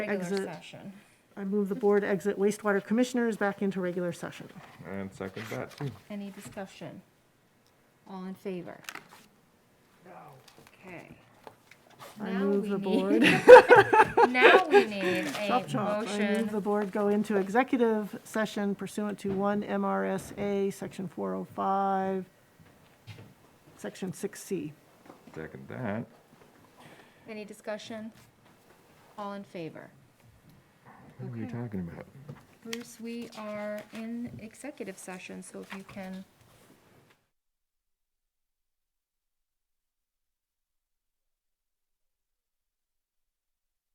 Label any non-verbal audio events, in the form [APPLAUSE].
regular Exit. session. I move the board exit wastewater commissioners back into regular session. And second that, too. Any discussion? All in favor? No. Okay. I Now move we the need- board. [LAUGHS] Now we need a [LAUGHS] Chop chop. I move the motion. board go into executive session pursuant to 1 MRSA, Section 405, Section 6C. Second that. Any discussion? All in favor? What are we Okay. talking about? Bruce, we are in executive session, so if you can